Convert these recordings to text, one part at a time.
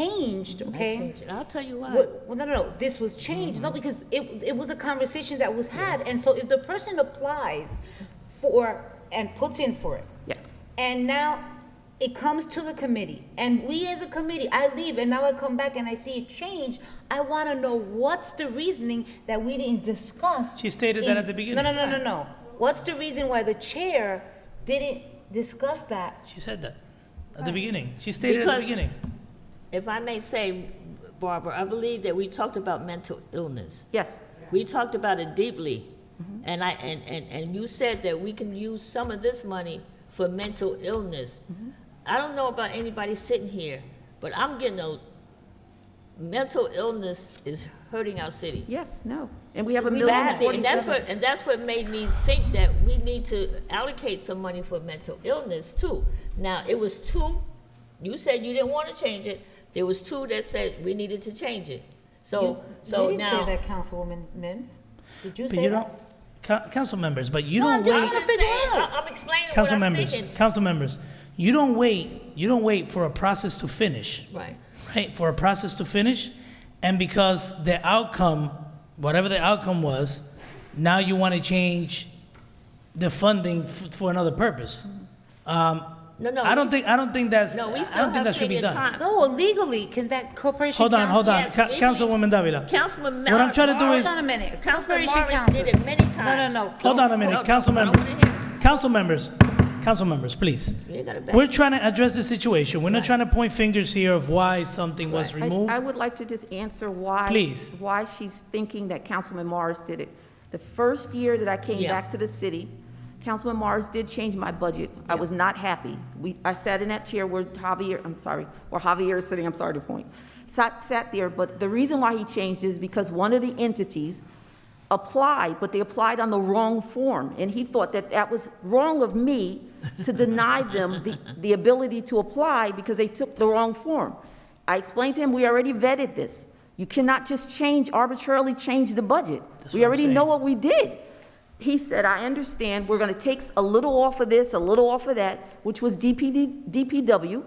changed, okay? changed it. I'll tell you why. Well, well, no, no, no, this was changed, no, because it, it was a conversation that was had, and so if the person applies for, and puts in for it, Yes. and now it comes to the committee, and we as a committee, I leave, and now I come back and I see it changed, I wanna know what's the reasoning that we didn't discuss. She stated that in- at the beginning. No, no, no, no, no, what's the reason why the chair didn't discuss that? She said that at the beginning. She stated at the Because- beginning. If I may say, Barbara, I believe that we talked about mental illness. Yes. We talked about it deeply. And I, and, and, and you said that we can use some of this money for mental illness. I don't know about anybody sitting here, but I'm getting a, mental illness is hurting our city. Yes. No. And we have a We million have it, And that's forty-seven. what, and that's what made me think that we need to allocate some money for mental illness too. Now, it was two, you said you didn't want to change it, there was two that said we needed to change it. So, so You didn't say now, that, Councilwoman Mims, did you But say that? you don't, co- council members, but you No, I'm don't just wait. trying I'm to figure saying- out. I- I'm explaining what Council I'm members, thinking. council members, you don't wait, you don't wait for a process to finish, Right, right? For a process to finish, and because the outcome, whatever the outcome was, now you want to change the funding f- for another purpose. no, no. I don't think, I don't think that's, I No, we still don't think have that should be plenty of done. time. No, well, legally, can that corporation Hold on, counsel- hold on, Yes, Ca- legally- Councilwoman Davila. Councilman. What I'm trying to do Morris- is- Hold on a minute. Councilman Corporation Morris did counsel. it many times. No, no, no. Hold on a minute, Hold on, council I don't members, wanna council members, council members, please. You gotta back- We're trying to address the situation. We're not trying to point fingers here of why something was I- removed. I would like to just answer why. Please. Why she's thinking that Councilman Morris did it. The first year that I came Yeah. back to the city, Councilman Morris did change my budget. I was not happy. We, I sat in that chair where Javier, I'm sorry, where Javier is sitting, I'm sorry to point. Sat, sat there, but the reason why he changed is because one of the entities applied, but they applied on the wrong form. And he thought that that was wrong of me to deny them the, the ability to apply because they took the wrong form. I explained to him, we already vetted this. You cannot just change, arbitrarily change the budget. We what I'm already saying. know what we did. He said, I understand, we're gonna take a little off of this, a little off of that, which was DPD, DPW,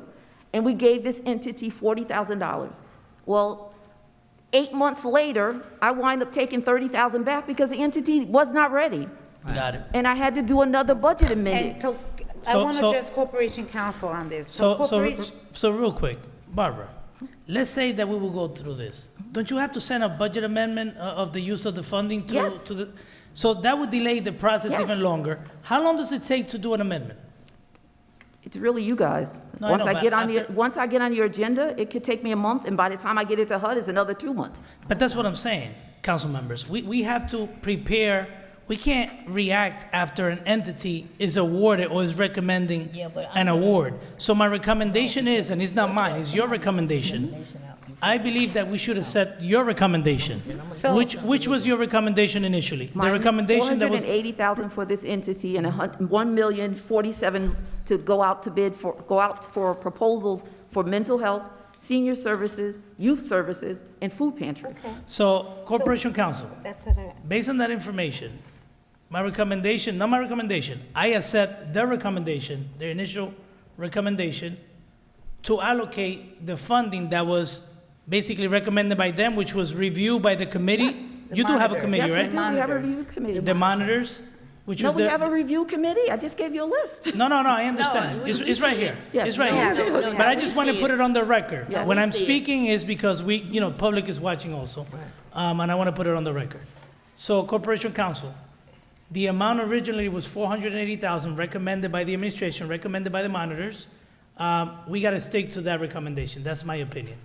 and we gave this entity forty thousand dollars. Well, eight months later, I wind up taking thirty thousand back because the entity was not ready, Got it. and I had to do another budget And amendment. so, I So- want to so- address corporation counsel on this. So, so, corporation- so real quick, Barbara, let's say that we will go through this. Don't you have to send a budget amendment uh, of the use of the funding to, Yes. to the? So that would delay the process Yes. even longer. How long does it take to do an amendment? It's really you guys. No, I Once know, I but get on the, after- once I get on your agenda, it could take me a month, and by the time I get it to HUD, it's another two months. But that's what I'm saying, council members. We, we have to prepare, we can't react after an entity is awarded or is recommending Yeah, but an award. So my recommendation is, and it's not mine, it's your recommendation. I believe that we should accept your recommendation. So- Which, which was your recommendation initially? The Mine, recommendation that was, 480,000 for this entity and a hun- 1,047 to go out to bid for, go out for proposals for mental health, senior services, youth services, and food pantry. so Corporation Council, That's what I, based on that information, my recommendation, not my recommendation, I accept their recommendation, their initial recommendation, to allocate the funding that was basically recommended by them, which was reviewed by the committee. Yes. You do have a Yes, committee, Yes, we right? do, we have a Monitors. review committee. The monitors, which No, was we have the, a review committee, I just gave you a list. no, no, no, I understand. we- It's, we it's right see here. Yes. It's right We here. have it, we But I have it. just We want to see put it. it on the record. Yeah, When we I'm see it. speaking is because we, you know, public is watching also. Um, and I want to put it on the record. So Corporation Council, the amount originally was four hundred and eighty thousand recommended by the administration, recommended by the monitors. Um, we got to stick to that recommendation. That's my opinion.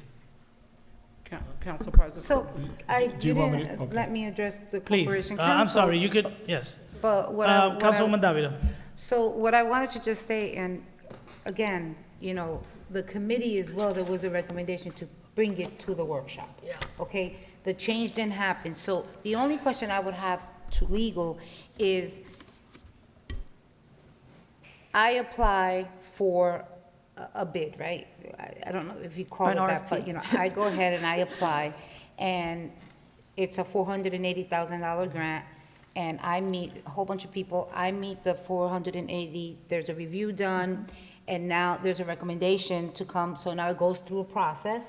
Coun- Council President. so, I, you do you want me to- didn't okay. let me address the Please. corporation Uh, counsel. I'm sorry, you could, yes. But what I, Uh, what I- Councilwoman Davila. so what I wanted to just say, and again, you know, the committee as well, there was a recommendation to bring it to the workshop. Yeah. Okay, the change didn't happen, so the only question I would have to legal is, I apply for a- a bid, right? I- I don't know if you call it An that, but, RFP. you know, I go ahead and I apply, and it's a $480,000 grant, and I meet a whole bunch of people, I meet the 480, there's a review done, And now there's a recommendation to come, so now it goes through a process